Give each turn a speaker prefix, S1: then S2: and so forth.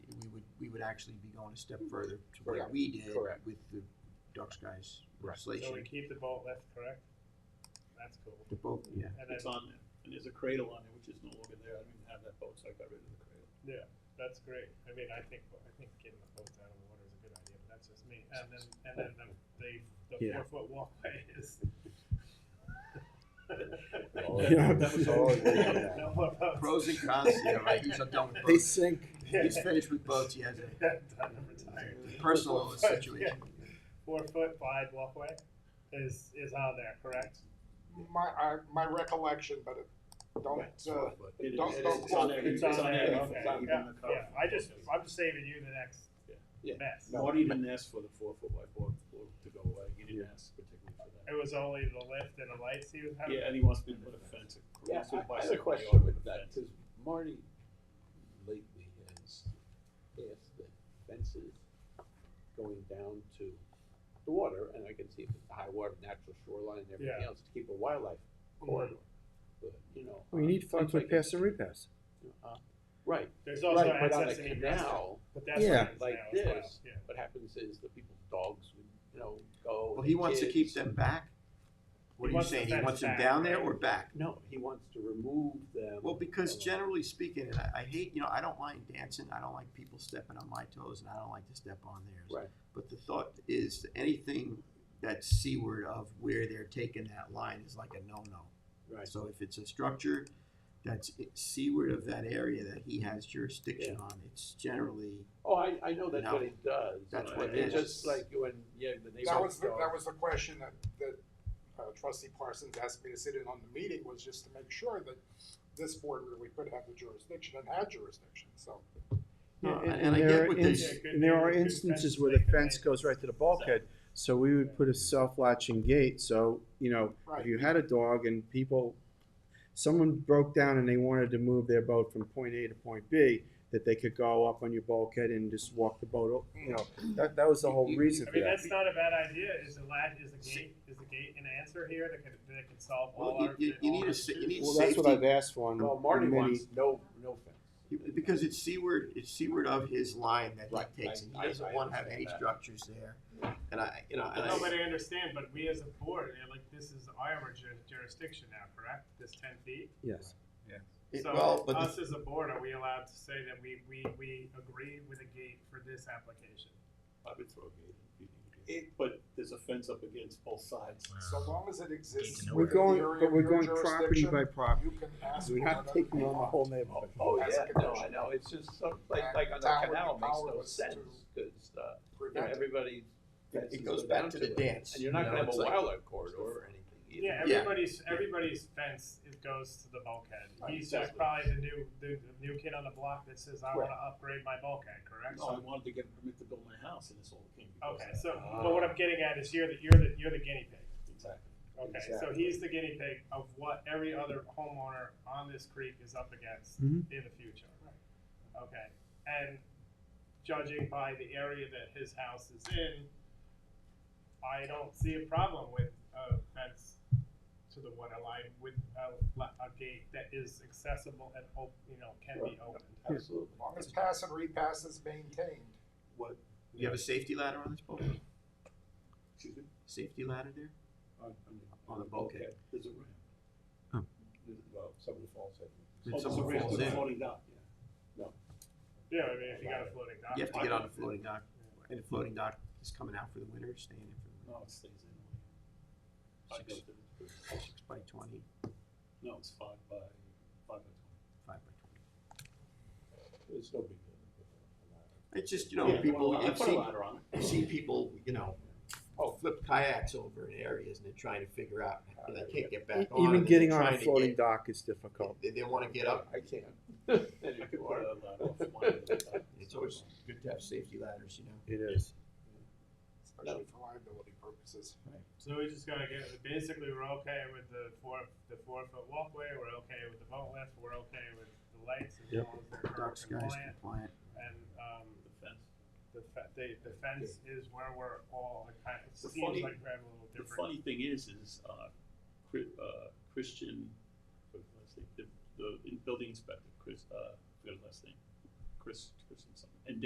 S1: would actually be going a step further to what
S2: Correct.
S1: we did
S2: Correct.
S1: with the dark skies
S2: Right.
S3: So we
S1: legislation.
S3: keep the vote left, correct? That's cool.
S1: The both, yeah.
S3: And
S4: It's
S3: then,
S4: on there, and there's a cradle on there, which is no longer there, I don't even have that boat, so I got rid of the cradle.
S3: yeah, that's great. I mean, I think, I think getting the boats out of the water is a good idea, but that's just me. And then, and then the, the, the
S5: Yeah.
S3: four foot walkway is.
S5: Yeah.
S3: That was all. No more votes.
S1: Pros and cons, yeah, right, he's done with
S5: They
S1: boats.
S5: sink.
S3: Yeah.
S1: He's finished with boats, he has a
S3: Yeah, done and retired.
S1: personal
S3: Yeah.
S1: situation.
S3: Four foot wide walkway is, is on there, correct?
S2: My, I, my recollection, but it, don't, uh,
S4: It is-
S2: Don't-
S4: it is-
S2: don't
S4: It's on
S2: quote
S4: there,
S2: me.
S4: it's on there,
S3: okay,
S4: it's not even
S3: yeah,
S4: in the cover.
S3: yeah. I just, I'm just saving you the next
S2: Yeah.
S3: mess.
S4: Marty didn't ask for the four foot wide board board to go away, he didn't ask particularly for that.
S3: It was only the lift and the lights he was having?
S4: Yeah, and he wants me to put a fence. he
S6: Yeah,
S4: wants
S6: I
S4: to
S6: I had a
S4: bicycle
S6: question
S4: yard
S6: with
S4: a
S6: that,
S4: fence.
S6: because Marty lately has asked that fences going down to the water, and I can see if it's high water, natural shoreline and everything
S3: Yeah.
S6: else, to keep a wildlife corridor. But, you know.
S5: We need funds with
S6: pest.
S5: pass and repass.
S6: uh, Right,
S3: There's also
S6: right, but on a
S3: access in egress,
S6: canal,
S3: but that's what
S5: Yeah.
S3: it is now
S6: like
S3: as well,
S6: this.
S3: yeah.
S6: what happens is the people's dogs would, you know, go. and
S1: Well, he
S6: the
S1: wants to keep
S6: kids.
S1: them back? What are
S3: He
S1: you
S3: wants the
S1: saying, he
S3: fence
S1: wants them
S3: back,
S1: down there
S3: right?
S1: or back?
S6: No, he wants to remove them.
S1: Well, because
S6: from-
S1: generally speaking, and I, I hate, you know, I don't mind dancing, I don't like people stepping on my toes, and I don't like to step on theirs.
S6: Right.
S1: But the thought is, anything that's seaward of where they're taking that line is like a no-no.
S6: Right.
S1: So if it's a structure that's i- seaward of that area that he has jurisdiction on, it's generally,
S6: Oh, I, I know that's
S1: No.
S6: what it does.
S1: That's
S6: It's
S1: what it
S6: it's
S1: is.
S6: Just like when, yeah, the neighbors.
S2: That was, the-
S6: go-
S2: that was the question that, that uh, trustee Parsons asked me to sit in on the meeting, was just to make sure that this board really could have the jurisdiction and had jurisdiction, so.
S1: No,
S5: And
S1: and
S5: and
S1: I get
S5: there are,
S1: what
S5: ins-
S1: they-
S5: and there are instances where the fence goes right to the bulkhead, so we would put a self-latching gate, so, you know, if
S2: Right.
S5: you had a dog and people, someone broke down and they wanted to move their boat from point A to point B, that they could go up on your bulkhead and just walk the boat, o- you know, that, that was the whole
S1: You- you-
S5: reason
S3: I
S5: for
S3: mean,
S5: that.
S3: that's not a bad idea, is the lat, is the gate, is the gate an answer here that could, that could solve all
S1: well,
S3: our?
S1: you, you, you
S3: all
S1: need
S3: our
S1: a, sa- you
S3: issues?
S1: need
S5: Well, that's what I've
S1: safety,
S5: asked for on
S6: Well, Marty
S5: on many,
S6: wants no, no fence.
S1: because it's seaward, it's seaward of his line that
S6: Right,
S1: he takes,
S6: I-
S1: and
S6: I-
S1: he doesn't
S6: I
S1: wanna have any
S6: understand that.
S1: structures there. And I, you know, and
S3: No,
S1: I.
S3: but I understand, but we as a board, eh, like, this is our ju- jurisdiction now, correct? This ten feet?
S5: yes.
S1: It- well,
S3: So
S1: but the-
S3: us as a board, are we allowed to say that we, we, we agree with a gate for this application?
S4: I would throw a gate if you needed it, but there's a fence up against both sides.
S2: So long as it exists.
S5: We're
S2: within the
S5: going,
S2: area
S5: but
S2: of
S5: we're
S2: your
S5: going property
S2: jurisdiction,
S5: by property,
S2: You can ask.
S5: we're
S2: for
S5: not
S2: whatever
S5: taking
S2: you
S5: on the
S2: want.
S5: whole neighborhood.
S6: Oh,
S2: As
S6: yeah,
S2: a
S6: no, I
S2: condition.
S6: know, it's just some, like,
S2: And
S6: like on
S2: that
S6: the
S2: would be
S6: canal, it makes no
S2: powerless
S6: sense,
S2: to-
S6: cause, uh, you know,
S2: Prevent it.
S6: everybody's fences
S1: It goes
S6: go
S1: back
S6: down
S1: to the
S6: it.
S1: dance.
S6: And you're not
S1: you know,
S6: gonna have a
S1: it's like-
S6: wildlife corridor or anything either.
S3: Yeah,
S1: Yeah.
S3: everybody's, everybody's fence, it goes to the bulkhead.
S4: Right,
S3: He's just
S4: exactly.
S3: probably the new, the the new kid on the block that says, I wanna upgrade my bulkhead, correct?
S4: So I wanted to get a permit to build my house, and this all came because of
S3: Okay,
S4: that.
S3: so, but what I'm getting at is you're the, you're the, you're the guinea pig.
S4: Exactly.
S3: Okay, so he's the guinea pig of what every other homeowner on this creek is up against in
S5: Mhm.
S3: the future. Okay, and judging by the area that his house is in, I don't see a problem with a fence to the water line with a, la- a gate that is accessible and op, you know, can be opened.
S6: Absolutely.
S2: As long as pass and repass is maintained.
S6: What,
S1: You have a safety ladder on this boat?
S4: Excuse me?
S1: Safety ladder there?
S4: On,
S1: On the bulkhead.
S4: There's a ramp.
S5: Oh.
S4: There's- Well, somebody falls in.
S1: Did
S4: Oh, there's a
S1: someone
S4: ramp
S1: falls
S4: that's
S1: in?
S4: floating down, yeah.
S3: Yeah, I mean, if you got a floating dock.
S1: You have to
S3: why
S1: get on a
S3: wouldn't-
S1: floating dock, and the floating dock is coming out for the winter, staying in for
S4: No, it stays in.
S1: the
S4: I
S1: winter.
S4: built
S1: Six,
S4: it.
S1: six by twenty,
S4: No, it's five by, five by
S1: five
S4: twenty.
S1: by
S6: it's no big deal.
S1: twenty. It's just, you
S4: Yeah,
S1: know,
S4: I
S1: people,
S4: put a- I
S1: I've
S4: put a
S1: seen,
S4: ladder on it.
S1: I've seen people, you know, flip kayaks over in areas and they're trying to figure out, and they can't get back on.
S5: E-, Even
S1: and they're
S5: getting on
S1: trying
S5: a
S1: to
S5: floating
S1: get-
S5: dock is difficult.
S1: They, they wanna get up,
S6: I can't.
S4: I could put a ladder off one end of the dock.
S1: it's always good to have safety ladders, you know.
S5: It is.
S2: Especially for liability purposes.
S3: So we just gotta get, basically, we're okay with the four, the four foot walkway, we're okay with the boat lift, we're okay with the lights as
S5: Yep.
S3: long as they're
S1: Dark skies
S3: compliant.
S1: compliant.
S3: And, um,
S4: The fence.
S3: the fe- the, the fence is where we're all, it kind of
S4: The
S3: seems
S4: funny-
S3: like we have a little
S4: The
S3: different.
S4: funny thing is, is, uh, Chri- uh, Christian, what was his name? the, the building inspector, Chris, uh, forget his last name, Chris, Chris something.